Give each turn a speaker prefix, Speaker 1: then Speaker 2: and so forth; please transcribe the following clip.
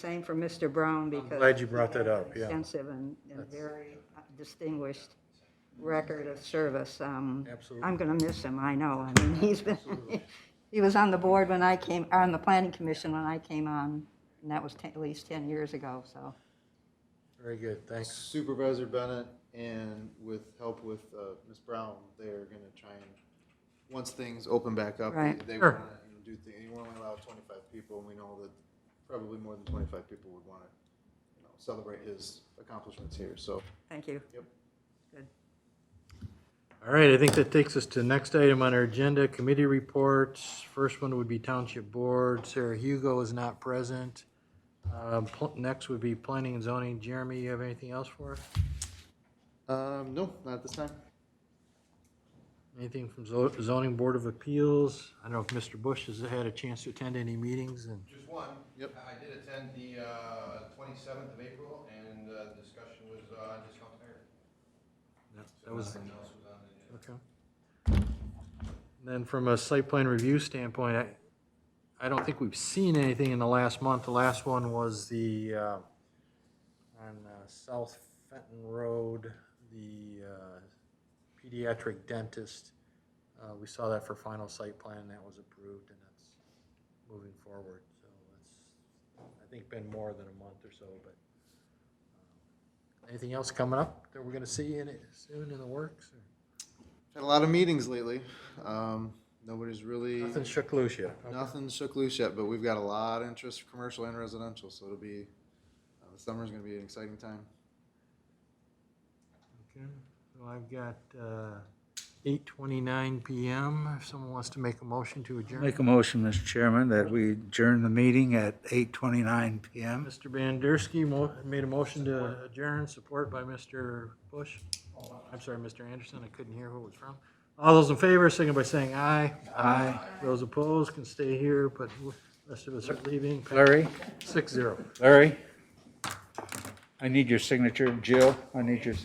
Speaker 1: Same for Mr. Brown because.
Speaker 2: glad you brought that up, yeah.
Speaker 1: Extensive and, and very distinguished record of service. Um,
Speaker 2: Absolutely.
Speaker 1: I'm gonna miss him, I know. I mean, he's been, he was on the board when I came, on the planning commission when I came on, and that was ten- at least 10 years ago, so.
Speaker 2: Very good, thanks.
Speaker 3: Supervisor Bennett and with help with uh, Ms. Brown, they're gonna try and, once things open back up,
Speaker 1: Right.
Speaker 3: they- they
Speaker 2: Sure.
Speaker 3: wanna you know, do things, you wanna allow twenty-five people, and we know that probably more than twenty-five people would wanna, you know, celebrate his accomplishments here, so.
Speaker 1: Thank you.
Speaker 3: Yep.
Speaker 1: Good.
Speaker 2: All right, I think that takes us to the next item on our agenda, committee reports. First one would be Township Board. Sarah Hugo is not present. Um, pl- Next would be Planning and Zoning. Jeremy, you have anything else for us?
Speaker 3: Um, no, not at this time.
Speaker 2: Anything from Zo- Zoning Board of Appeals? I don't know if Mr. Bush has had a chance to attend any meetings and,
Speaker 4: Just one.
Speaker 3: Yep.
Speaker 4: I I did attend the uh, 27th of April, and uh, the discussion was uh, discount tire.
Speaker 2: no, that was,
Speaker 4: Nothing else was on the agenda.
Speaker 2: okay. Then from a site plan review standpoint, I, I don't think we've seen anything in the last month. The last one was the, uh, on uh, South Fenton Road, the uh, pediatric dentist. Uh, We saw that for final site plan, and that was approved, and that's moving forward. So it's, I think, been more than a month or so, but um, anything else coming up that we're going to see in it soon in the works? or-
Speaker 3: Had a lot of meetings lately. Um, nobody's really,
Speaker 2: Nothing shook loose yet?
Speaker 3: nothing shook loose yet, but we've got a lot of interest, commercial and residential, so it'll be, uh, the summer's gonna be an exciting time.
Speaker 2: Okay, so I've got uh, 8:29 PM, if someone wants to make a motion to adjourn.
Speaker 5: Make a motion, Mr. Chairman, that we adjourn the meeting at 8:29 PM.
Speaker 2: Mr. Bandersky mo- made a motion to adjourn, support by Mr. Bush. I'm sorry, Mr. Anderson, I couldn't hear who it was from. All those in favor, signal by saying aye. Aye. Those opposed can stay here, but the rest of us are leaving.
Speaker 5: Larry,
Speaker 2: Six zero.
Speaker 5: Larry, I need your signature. Jill, I need your